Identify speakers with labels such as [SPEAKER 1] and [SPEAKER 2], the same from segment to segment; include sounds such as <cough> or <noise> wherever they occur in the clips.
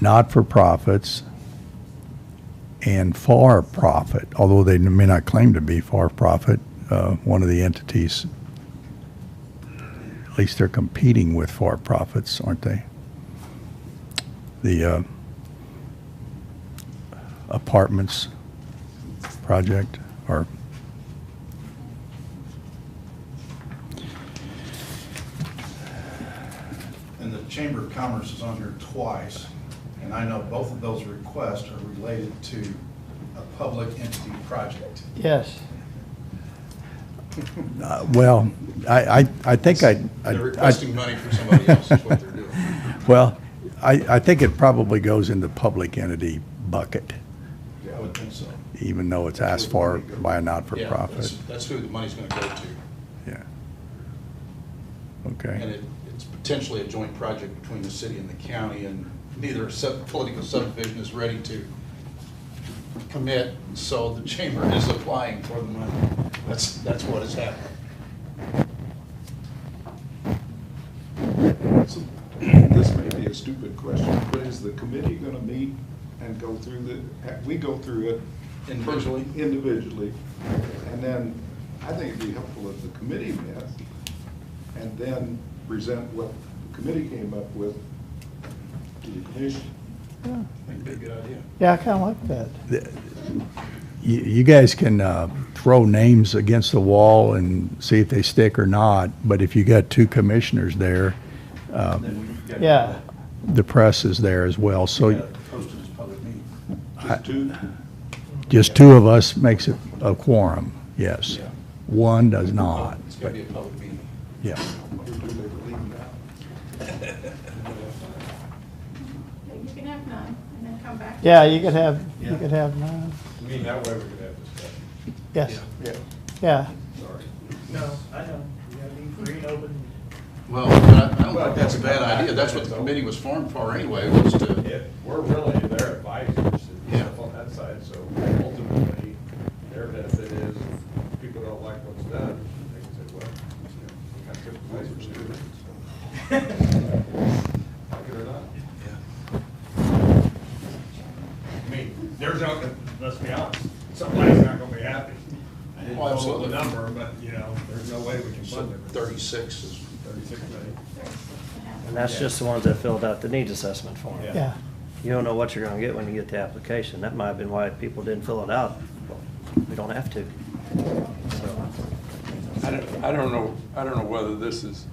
[SPEAKER 1] not-for-profits, and for-profit, although they may not claim to be for-profit, uh, one of the entities, at least they're competing with for-profits, aren't they? The uh, apartments project, or,
[SPEAKER 2] And the Chamber of Commerce is on here twice, and I know both of those requests are related to a public entity project.
[SPEAKER 3] Yes.
[SPEAKER 1] uh, well, I, I, I think I. I- I-
[SPEAKER 4] They're requesting money from somebody else is what they're doing.
[SPEAKER 1] <laughs> Well, I, I think it probably goes in the public entity bucket,
[SPEAKER 2] I would think so.
[SPEAKER 1] even though it's asked for by a
[SPEAKER 4] Yeah,
[SPEAKER 1] not-for-profit.
[SPEAKER 4] that's- That's who the money's going to go to.
[SPEAKER 1] Yeah.
[SPEAKER 4] And
[SPEAKER 1] Okay.
[SPEAKER 4] it, it's potentially a joint project between the city and the county, and neither sub, political subdivision is ready to commit, so the chamber is applying for the money. That's, that's what has happened.
[SPEAKER 5] So, <clears throat> This may be a stupid question, but is the committee gonna meet and go through the, we go through it?
[SPEAKER 4] Individually?
[SPEAKER 5] Individually, and then I think it'd be helpful if the committee met and then present what the committee came up with to the commission.
[SPEAKER 4] I think it'd be a good idea.
[SPEAKER 3] Yeah, I kind of like that.
[SPEAKER 1] You, you guys can uh, throw names against the wall and see if they stick or not, but if you got two commissioners there, uh,
[SPEAKER 3] Yeah.
[SPEAKER 1] the press is there as well, so
[SPEAKER 2] Posted uh, as public meeting.
[SPEAKER 5] Just two,
[SPEAKER 1] just two of us makes it a quorum, yes. One does not,
[SPEAKER 4] It's
[SPEAKER 1] but,
[SPEAKER 4] going to be a public meeting.
[SPEAKER 1] yeah.
[SPEAKER 5] or do they leave it out?
[SPEAKER 6] <laughs>
[SPEAKER 7] You can have none and then come back.
[SPEAKER 3] Yeah, you could have, you could have nine.
[SPEAKER 6] I mean, that way we could have discussion.
[SPEAKER 3] Yes,
[SPEAKER 5] Yeah.
[SPEAKER 3] yeah.
[SPEAKER 6] No, I know, you gotta be free and open.
[SPEAKER 4] Well, I I don't
[SPEAKER 6] Well,
[SPEAKER 4] think that's a bad
[SPEAKER 6] that's-
[SPEAKER 4] idea. That's what the committee was formed for anyway, was to,
[SPEAKER 6] If, we're really their advisors and
[SPEAKER 4] Yeah.
[SPEAKER 6] stuff on that side, so ultimately, their benefit is, if people don't like what's done, they can say, well, you know, we got good advisors to do it. so. Like it or not. I mean, there's not, gonna- let's be honest, somebody's not gonna be happy. I didn't
[SPEAKER 4] Oh,
[SPEAKER 6] know
[SPEAKER 4] absolutely.
[SPEAKER 6] the number, but, you know, there's no way we can fund it.
[SPEAKER 4] 36 is,
[SPEAKER 6] Thirty-six million.
[SPEAKER 8] And that's just the ones that filled out the needs assessment form.
[SPEAKER 6] Yeah.
[SPEAKER 3] Yeah,
[SPEAKER 8] You don't know what you're gonna get when you get the application. That might have been why people didn't fill it out. Well, We don't have to. So,
[SPEAKER 9] I don't, I don't know, I don't know whether this is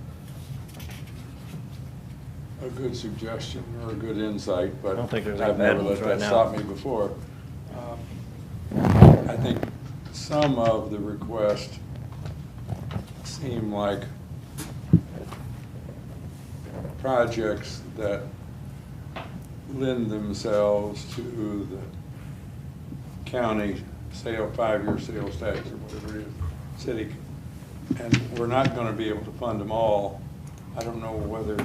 [SPEAKER 9] a good suggestion or a good insight, but
[SPEAKER 8] I don't think there's any
[SPEAKER 9] I've
[SPEAKER 8] bad
[SPEAKER 9] never
[SPEAKER 8] ones
[SPEAKER 9] let that
[SPEAKER 8] right now.
[SPEAKER 9] stop me before. Um, I think some of the requests seem like projects that lend themselves to the county sale, five-year sales tax or whatever it is, city. And we're not gonna be able to fund them all. I don't know whether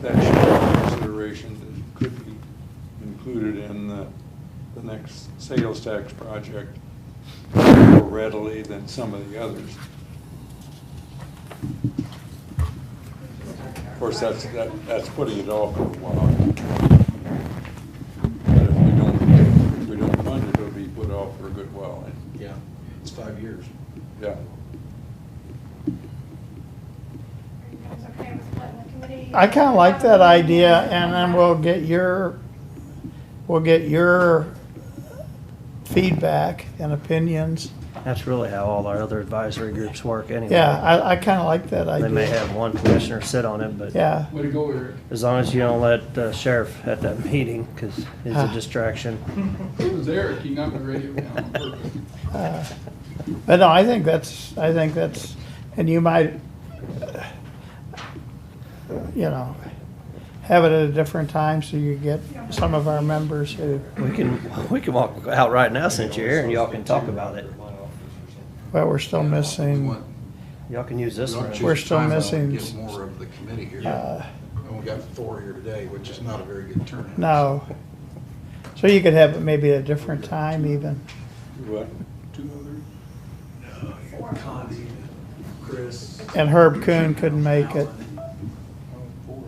[SPEAKER 9] that should be a consideration that could be included in the, the next sales tax project more readily than some of the others. Of course, that's, that, that's putting it off for a while. But if we don't, if we don't fund it, it'll be put off for a good while, and,
[SPEAKER 4] yeah, it's five
[SPEAKER 3] <laughs>
[SPEAKER 4] years.
[SPEAKER 9] yeah.
[SPEAKER 7] Are you guys okay with letting the committee?
[SPEAKER 3] I kind of like that idea, and then we'll get your, we'll get your feedback and opinions.
[SPEAKER 8] That's really how all our other advisory groups work anyway.
[SPEAKER 3] Yeah, I, I kind of like that
[SPEAKER 8] They
[SPEAKER 3] idea.
[SPEAKER 8] may have one commissioner sit on it, but
[SPEAKER 3] Yeah,
[SPEAKER 4] Way to go, Eric.
[SPEAKER 8] as long as you don't let the sheriff at that meeting, because it's a
[SPEAKER 3] Ah.
[SPEAKER 8] distraction.
[SPEAKER 4] It was Eric, he knocked the radio down on purpose.
[SPEAKER 3] but no, I think that's, I think that's, and you might, uh, you know, have it at a different time so you get some of our members who,
[SPEAKER 8] We can, we can walk out right now since you're here and y'all can talk about it.
[SPEAKER 3] well, we're still
[SPEAKER 4] We
[SPEAKER 3] missing. uh,
[SPEAKER 4] want-
[SPEAKER 8] Y'all can use this
[SPEAKER 4] we want
[SPEAKER 8] room.
[SPEAKER 4] to
[SPEAKER 3] We're
[SPEAKER 4] choose
[SPEAKER 3] still
[SPEAKER 4] time out
[SPEAKER 3] missing-
[SPEAKER 4] and Get more of the committee here.
[SPEAKER 3] Uh,
[SPEAKER 4] And we got four here today, which is not a very good turnout.
[SPEAKER 3] No. So you could have it maybe at a different time even.
[SPEAKER 9] What?
[SPEAKER 7] Connie,
[SPEAKER 3] And Herb Kuhn couldn't make it.
[SPEAKER 5] Four,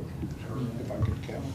[SPEAKER 5] if I could count.